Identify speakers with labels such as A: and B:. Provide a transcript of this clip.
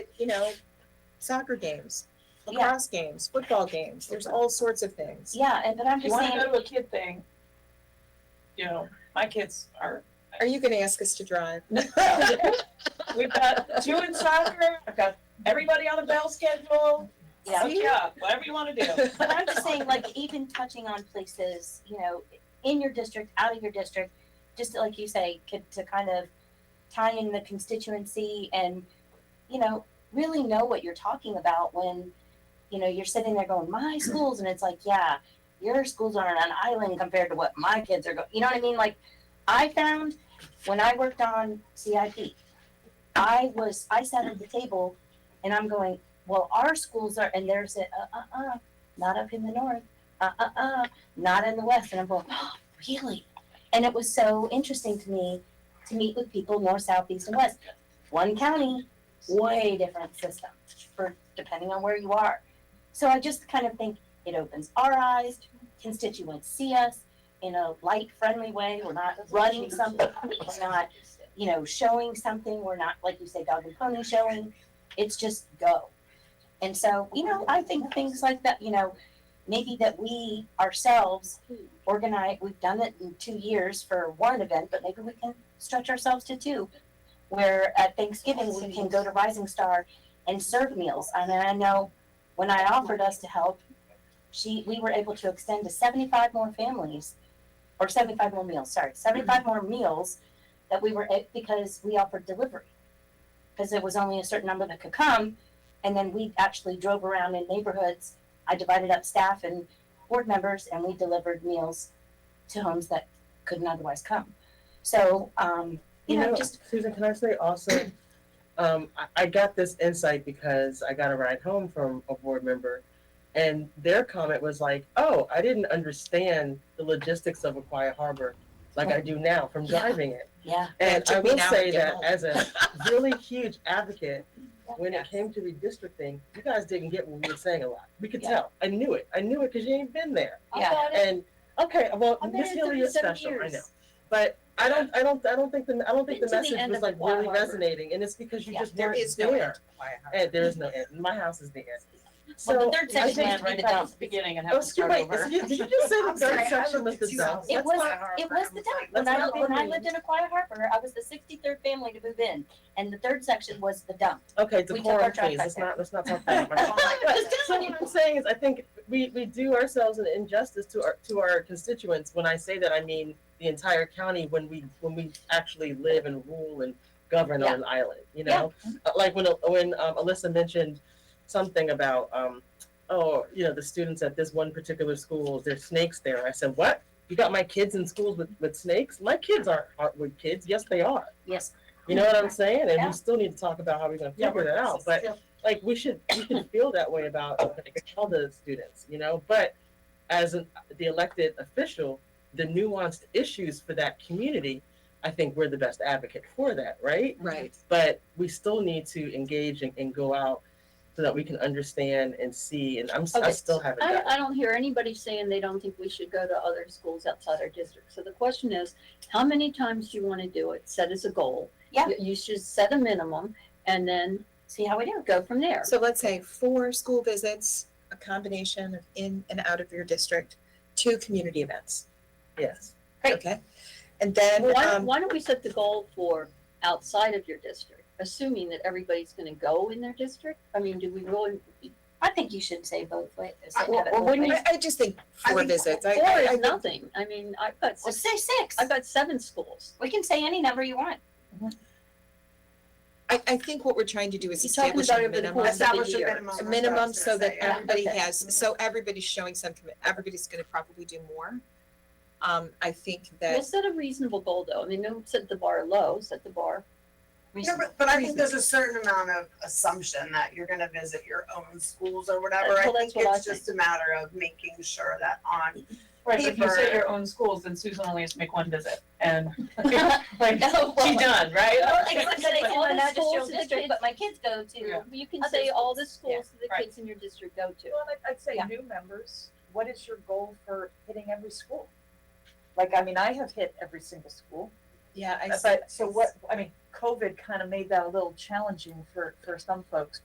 A: you know, soccer games,
B: Yeah.
A: lacrosse games, football games. There's all sorts of things.
B: Yeah, and but I'm
C: If you
B: just
C: wanna
B: saying,
C: go to a kid thing, you know, my kids are,
A: Are you going to ask us to drive?
C: we've got two in soccer, I've got everybody on the bell schedule.
B: yeah,
C: Hook you up, whatever you wanna do.
B: but I'm just saying, like, even touching on places, you know, in your district, out of your district, just like you say, could, to kind of tie in the constituency and, you know, really know what you're talking about when, you know, you're sitting there going, my schools, and it's like, yeah, your schools are on an island compared to what my kids are going, you know what I mean? Like, I found when I worked on CIP, I was, I sat at the table and I'm going, well, our schools are, and there's a, uh, uh, uh, not up in the north, uh, uh, uh, not in the west, and I'm going, oh, really? And it was so interesting to me to meet with people north, south, east, and west. One county, way different system for depending on where you are. So I just kind of think it opens our eyes, constituents see us in a light, friendly way. We're not running something, we're not, you know, showing something. We're not, like you say, dog and pony showing. It's just go. And so, you know, I think things like that, you know, maybe that we ourselves organize, we've done it in two years for one event, but maybe we can stretch ourselves to two. Where at Thanksgiving, we can go to Rising Star and serve meals. I mean, I know when I offered us to help, she, we were able to extend to seventy-five more families, or seventy-five more meals, sorry, seventy-five more meals that we were, eh, because we offered delivery. Because it was only a certain number that could come, and then we actually drove around in neighborhoods. I divided up staff and board members, and we delivered meals to homes that couldn't otherwise come. So, um, you know, just
D: Susan, can I say also, um, I, I got this insight because I got a ride home from a board member, and their comment was like, "Oh, I didn't understand the logistics of a quiet harbor like I do now from
A: Yeah.
D: driving it."
B: yeah,
D: And
A: It took
D: I
A: me
D: will
A: an hour to
D: say
A: get
D: that
A: home.
D: as a really huge advocate,
B: Yeah.
D: when it came to redistricting, you guys didn't get what we were saying a lot. We could
B: Yeah.
D: tell. I knew it. I knew it because you ain't been there.
B: yeah,
D: And okay, well,
C: I've been
D: Miss
C: here
D: Healy is
C: 37
D: special. I know.
C: years.
D: But I don't, I don't, I don't think the, I don't think
C: Into
D: the
C: the
D: message
C: end
D: was
C: of the
D: like really
C: wildlife.
D: resonating, and it's because you
B: Yeah,
D: just
A: There
D: weren't
A: is no end
D: there.
A: to Quiet Harbor.
D: And there is no end. My house is the end.
B: Well, the
D: So.
B: third
C: I
B: section
C: think
B: went right
C: we
B: to
C: back to
B: dump.
C: the beginning and
D: Oh,
C: have to
D: excuse
C: start
D: me,
C: over.
D: did you just say the
A: I'm sorry,
D: third
A: I
D: section was
A: lived
D: the
A: in
D: south?
A: Tucson.
B: It
A: That's
B: was,
A: Quiet Harbor.
B: it was the dump. When
D: That's
B: I,
D: not
B: when I
D: funny.
B: lived in Aquia Harbor, I was the sixty-third family to move in, and the third section was the dump.
D: Okay,
B: took
D: decorum,
B: our drive
D: please.
B: back
D: Let's
B: there.
D: not, let's not talk about my house.
B: Just
D: But so
B: telling you.
D: what I'm saying is, I think we, we do ourselves an injustice to our, to our constituents. When I say that, I mean the entire county when we, when we actually live and rule and govern on an island, you know? Uh, Like when, when um, Alyssa mentioned something about, um, oh, you know, the students at this one particular school, there's snakes there. I said, what? You got my kids in schools with, with snakes? My kids aren't, aren't with kids. Yes, they are.
B: Yes.
D: You know what I'm saying? And
B: Yeah.
D: we still need to talk about how we're gonna figure that out, but like we should we should feel that way about like, all the students, you know. But as an, the elected official, the nuanced issues for that community, I think we're the best advocate for that, right?
A: Right.
D: But we still need to engage and, and go out so that we can understand and see. And I'm s- I
E: Okay.
D: still haven't
E: I,
D: done.
E: I don't hear anybody saying they don't think we should go to other schools outside our district. So the question is, how many times do you want to do it? Set as a goal.
B: Yeah.
E: You- You should set a minimum and then
B: See how we do?
E: go from there.
A: So let's say four school visits, a combination of in and out of your district, two community events.
D: Yes.
B: Great.
A: Okay. And then,
E: Why,
A: um,
E: why don't we set the goal for outside of your district, assuming that everybody's going to go in their district? I mean, do we really?
B: I think you should say both ways.
E: I- well, well, wouldn't
A: I, I just think four visits. I,
E: Four
A: I, I
E: is
A: think
E: nothing. I mean, I've got,
B: Well,
E: six-
B: say six.
E: I've got seven schools.
B: We can say any number you want.
A: I, I think what we're trying to do is
E: You're talking
A: establish
E: about
A: a
E: over the
A: minimum,
E: course of the
F: Establish a
E: year.
F: minimum.
A: a minimum
F: that's what
A: so
F: I was
A: that
F: gonna say,
A: everybody
E: okay.
A: has, so everybody's showing some commit, everybody's gonna probably do more. Um, I think
E: We'll
A: that,
E: set a reasonable goal though. I mean, don't set the bar low, set the bar.
F: yeah. No, but, but I think there's a certain amount of assumption that you're gonna visit your own schools or whatever. I
E: Well, that's
F: think
E: what I
F: it's just a matter of making sure that on,
C: Right, but if you
F: Paper.
C: say your own schools, then Susan only has to make one visit and like,
B: No,
C: she done, right?
B: Well, except that it's
E: All
B: one
E: the
B: not just your
E: schools that the
B: district,
E: kids-
B: but my kids go
C: Yeah.
B: to.
E: You can
B: Other
E: say all the
B: schools.
E: schools that the
C: right.
E: kids in your district go to.
G: Well, I'd- I'd say
B: Yeah.
G: new members, what is your goal for hitting every school? Like, I mean, I have hit every single school,
A: yeah, I.
G: but, so what, I mean, COVID kind of made that a little challenging for, for some folks,